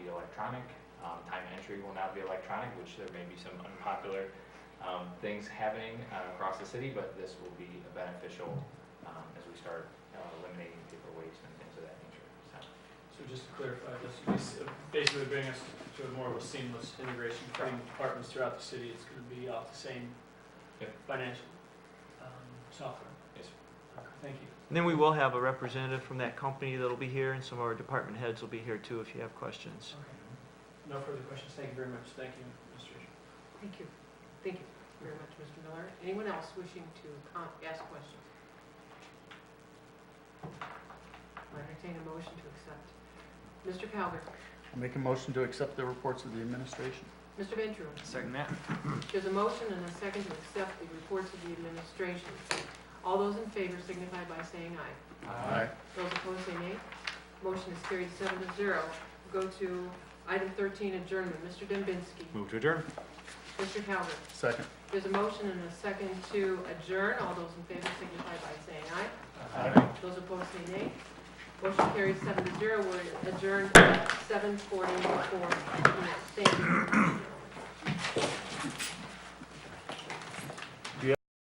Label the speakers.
Speaker 1: electronic. Um, Time entry will now be electronic, which there may be some unpopular um, things happening uh, across the city, but this will be beneficial um, as we start uh, eliminating paper waste and things of that nature. So,
Speaker 2: So just to clarify, this would be s- uh, basically bring us to a more of a seamless integration between departments throughout the city. It's gonna be off the same
Speaker 1: Yep.
Speaker 2: financial um, software.
Speaker 1: Yes,
Speaker 2: Okay, Thank you.
Speaker 3: And then we will have a representative from that company that'll be here, and some of our department heads will be here too if you have questions.
Speaker 2: Okay. No further questions. Thank you very much. Thank you, Mr.
Speaker 4: Thank you. Thank you very much, Mr. Miller. Anyone else wishing to com- ask questions? I'll entertain a motion to accept. Mr. Calgar,
Speaker 5: I'll make a motion to accept the reports of the administration.
Speaker 4: Mr. Ventura.
Speaker 3: Second that.
Speaker 4: There's a motion and a second to accept the reports of the administration. All those in favor signify by saying aye.
Speaker 5: Aye.
Speaker 4: Those opposed say nay. Motion is carried seven to zero. Go to item 13, adjournment. Mr. Dembinski.
Speaker 1: Move to adjourn.
Speaker 4: Mr. Calgar.
Speaker 5: Second.
Speaker 4: There's a motion and a second to adjourn. All those in favor signify by saying aye. Those opposed say nay. Motion carries seven to zero. We're adjourned at seven forty-four.